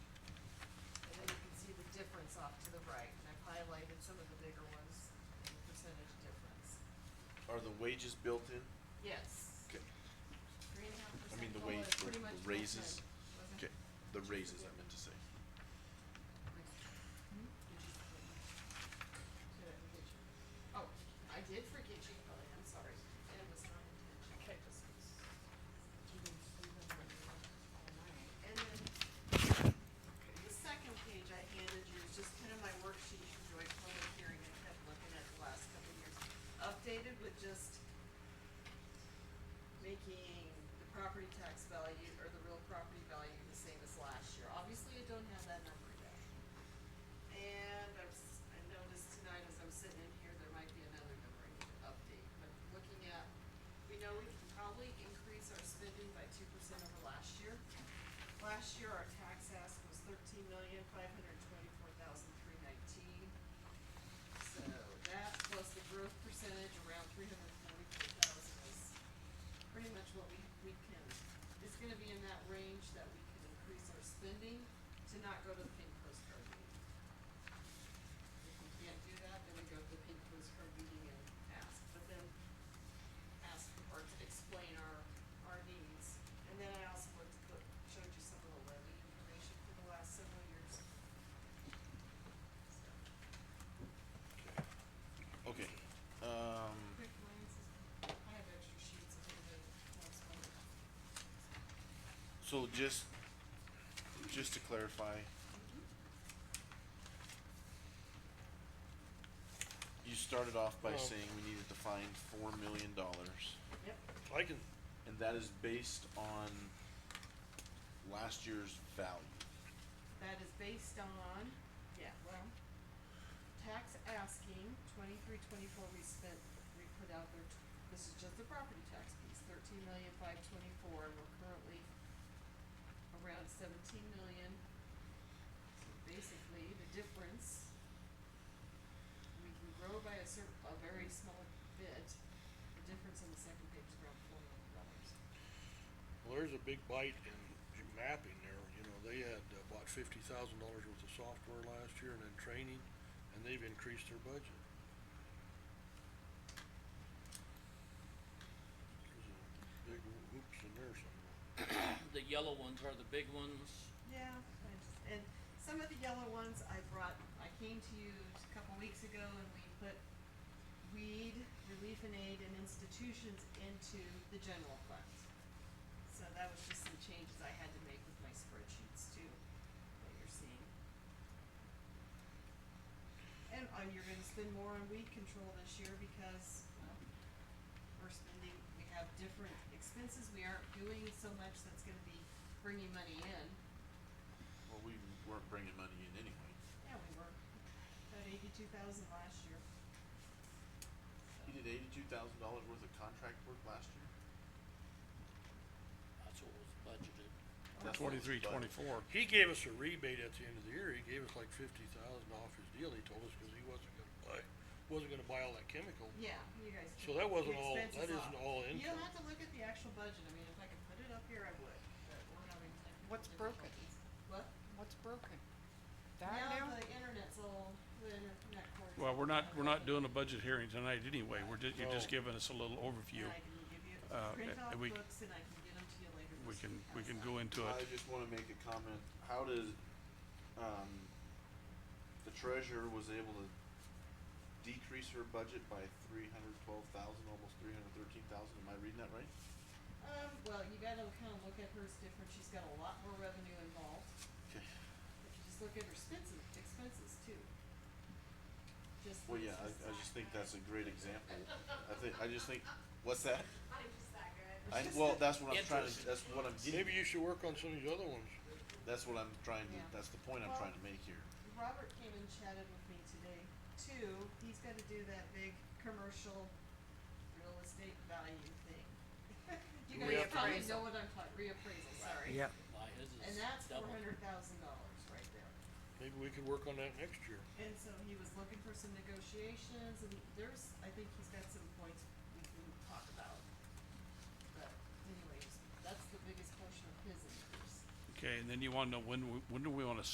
highlighted some of the bigger ones, and the percentage difference. Are the wages built in? Yes. Okay, Three and a half I mean, percent the COLA wage, is the pretty the much built in, raises, wasn't okay, it? the raises, I meant to say. Did I forget you? Oh, I did forget you, Kelly, I'm sorry, and it was not intentional. Okay. And then, the second page I handed you is just kind of my worksheet for joint public hearing, I kept looking at the last couple of years. Updated with just making the property tax value or the real property value the same as last year. Obviously, I don't have that number yet. And I've, s- I noticed tonight as I'm sitting in here, there might be another number I need to update, but looking at, we know we can probably increase our spending by two percent over last year. Last year, our tax ask was thirteen million, five hundred twenty-four thousand, three nineteen. So that plus the growth percentage around three hundred forty-four thousand is pretty much what we, we can, it's gonna be in that range that we can increase our spending to not go to the pink postcard meeting. If we can't do that, then we go to the pink postcard meeting and ask, but then ask or to explain our, our needs. And then I also looked, look- showed you some of the levy information for the last several years. So, Okay, um, Quick glance, I have extra sheets of it, that's so just, just to clarify, Mm-hmm. you started off by Well- saying we needed to find four million dollars, Yep, I can, and that is based on last year's value. That is based on, yeah, well, tax asking, twenty-three, twenty-four, we spent, we put out there, t- this is just the property tax piece, thirteen million, five twenty-four, and we're currently around seventeen million. So basically, the difference, we can grow by a cer- a very small bit, the difference on the second page is around four million dollars. well, there's a big bite in j- mapping there, you know, they had uh, bought fifty thousand dollars worth of software last year and then training, and they've increased their budget. There's a big oops in there somewhere. The yellow ones are the big ones. Yeah, I just, and some of the yellow ones I brought, I came to you a couple weeks ago and we put weed, relief and aid and institutions into the general fund. So that was just some changes I had to make with my spreadsheets too, what you're seeing. And, uh, you're gonna spend more on weed control this year because, well, we're spending, we have different expenses, we aren't doing so much that's gonna be bringing money in. Well, we weren't bringing money in anyway. Yeah, we were. About eighty-two thousand last year. You did eighty-two thousand dollars worth of contract work last year? That's what was budgeted. That's what was Twenty-three, budgeted. twenty-four. He gave us a rebate at the end of the year, he gave us like fifty thousand off his deal, he told us, cause he wasn't gonna buy, wasn't gonna buy all that chemical. Yeah, you guys. So that took wasn't the all- that expenses isn't off. all You don't income. have to look at the actual budget, I mean, if I could put it up here, I would, but we're having technical What's broken? difficulties. What? What's broken? That Now now? the internet's all, the internet cord. Well, we're not, we're not doing a budget hearing tonight anyway. We're just, you're just No. giving us a little overview. And I can give you, uh, print uh, off we- books and I can get them to you later. We this can, week. we can How's go that? into I it. just wanna make a comment, how does, um, the treasurer was able to decrease her budget by three hundred twelve thousand, almost three hundred thirteen thousand, am I reading that right? Um, well, you gotta kinda look at hers different, she's got a lot more revenue involved. Okay. If you just look at her expenses, expenses too. Just. Well, yeah, I, I just think that's a great example, I think, I just think, what's that? I'm just that good. I, well, that's what I'm trying to, Interest. that's what I'm Maybe getting, you should work on some of these other ones. that's what I'm trying to, Yeah. that's the point I'm Well- trying to make here. Robert came and chatted with me today too. He's gotta do that big commercial real estate value thing. You guys probably Reappraisal. know what I'm talking, reappraisal, sorry. Yeah. Why his And is that's four double. hundred thousand dollars right there. Maybe we could work on that next year. And so he was looking for some negotiations and there's, I think he's got some points we can talk about. But anyways, that's the biggest portion of his increase. Okay, and then you wanna know when, we- when do we wanna